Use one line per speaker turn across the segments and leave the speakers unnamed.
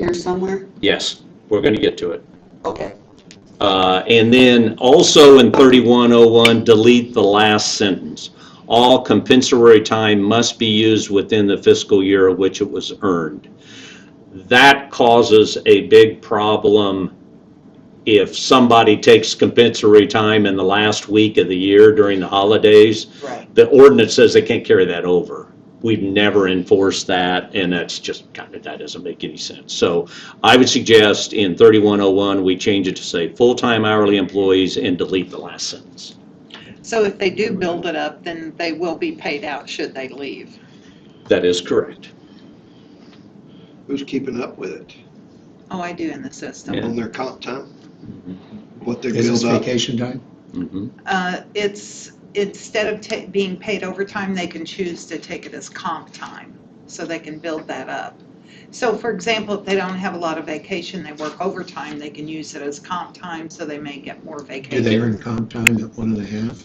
here somewhere?
Yes, we're going to get to it.
Okay,
Uh, And then also in 3101, delete the last sentence. All compensatory time must be used within the fiscal year of which it was earned. That causes a big problem if somebody takes compensatory time in the last week of the year during the holidays.
right.
The ordinance says they can't carry that over. We've never enforced that, and that's just kind of, that doesn't make any sense. So I would suggest in 3101, we change it to say full-time hourly employees and delete the last sentence.
So if they do build it up, then they will be paid out should they leave.
That is correct.
Who's keeping up with it
Oh, I do in the system.
Yeah.
on their comp time? What they
Is this
build up?
vacation time?
Mhm.
Uh, It's, instead of ta- being paid overtime, they can choose to take it as comp time, so they can build that up. So for example, if they don't have a lot of vacation, they work overtime, they can use it as comp time, so they may get more
Do
vacation.
they earn comp time at one and a half?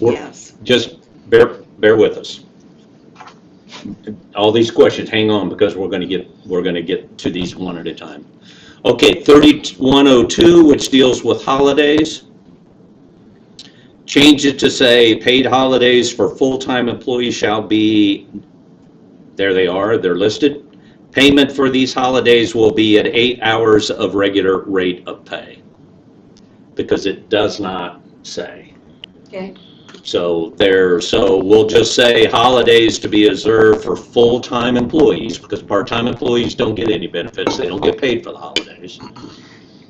We're-
Yes.
Just bear, bear with us. All these questions, hang on, because we're going to get, we're going to get to these one at a time. Okay, 3102, which deals with holidays. Change it to say, paid holidays for full-time employees shall be, there they are, they're listed. Payment for these holidays will be at eight hours of regular rate of pay. Because it does not say.
Okay.
So there, so we'll just say holidays to be observed for full-time employees, because part-time employees don't get any benefits, they don't get paid for the holidays.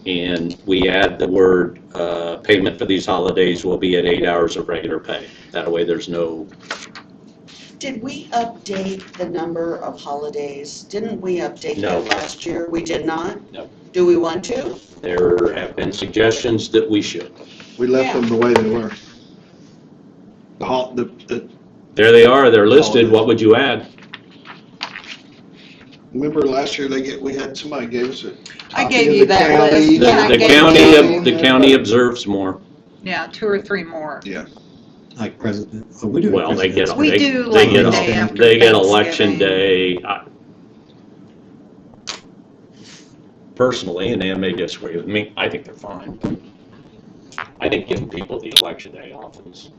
And we add the word, uh, payment for these holidays will be at eight hours of regular pay. That way, there's no,
Did we update the number of holidays? Didn't we update
No.
that last year? We did not?
No.
Do we want to?
there have been suggestions that we should.
We left them the way they were. The hol- the, the,
There they are, they're listed, what would you add?
remember last year they get, we had, somebody gave us a.
I
copy
gave
of
you
the
that
county,
list. Yeah, I
The
gave
county, the county observes more.
Yeah, two or three more.
Like president? oh, we do
Well, they get,
presidents.
We
they,
do
they get,
like the day
all-
after
they get election
Thanksgiving.
day. I- Personally, and they may disagree with me, I think they're fine. I think giving people the election day off is,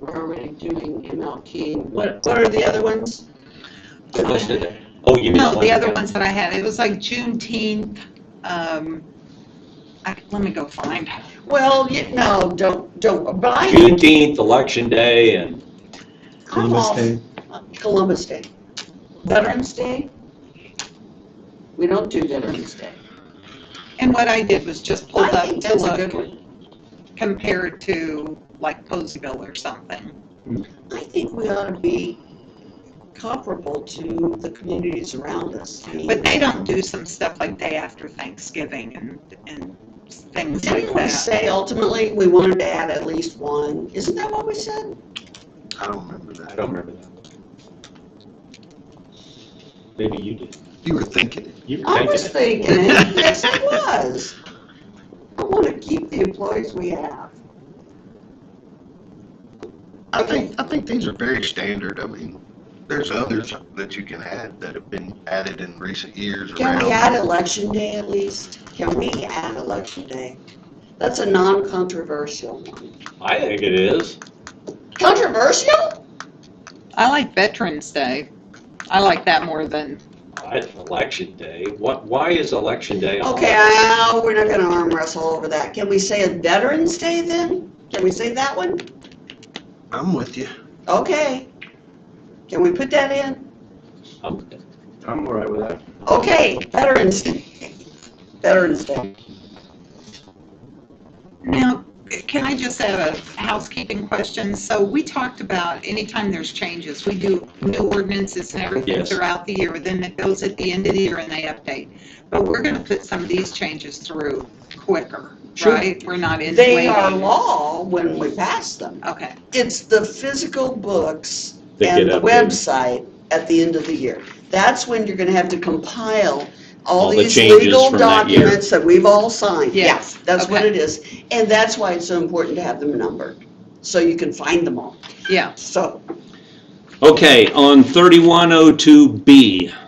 We're already doing MLK.
What-
What, what are the other ones?
they're listed there. Oh, you mean.
No, the
election
other
day.
ones that I had, it was like Juneteenth, um, I, let me go find.
Well, you, no, don't, don't, but I,
Juneteenth, election day, and
I'm
Columbus
all,
Day,
Columbus Day. Veterans Day? We don't do Veterans Day.
And what I did was just pulled
I
up
think
to
that's a good
look
one.
compared to like Poseville or something.
I think we ought to be comparable to the communities around us. I mean,
But they don't do some stuff like day after Thanksgiving and, and things like
Didn't we
that.
say ultimately we wanted to add at least one? Isn't that what we said?
I don't remember
I
that.
don't remember that. Maybe you did.
You were thinking. it.
You were
I was
thinking it.
thinking, it. yes, it was. I want to keep the employees we have.
I think, I think these are very standard. I mean, there's others that you can add that have been added in recent years
Can
around.
we add election day at least? Can we add election day? That's a non-controversial one.
I think it is.
Controversial?
I like Veterans Day. I like that more than,
I- Election day, what, why is election day? on
Okay, I- we're not gonna arm wrestle over that. Can we say a Veterans Day then? Can we say that one?
I'm with you.
Okay. Can we put that in?
Um,
I'm all right with that.
Okay, Veterans Day. Veterans Day.
now, can I just add a housekeeping question? So we talked about anytime there's changes, we do new ordinances and everything
Yes.
throughout the year, then it goes at the end of the year and they update. But we're gonna put some of these changes through quicker,
Sure.
right? We're not in
They are
waiting.
law when we pass them.
Okay,
It's the physical books
That
and
get
the
updated.
website at the end of the year. That's when you're gonna have to compile all
All the
these
changes
legal
from that year.
documents that we've all signed. Yeah,
Yes,
That's what
okay.
it is. And that's why it's so important to have them numbered, so you can find them all.
yeah.
So,
oh Okay, on 3102B,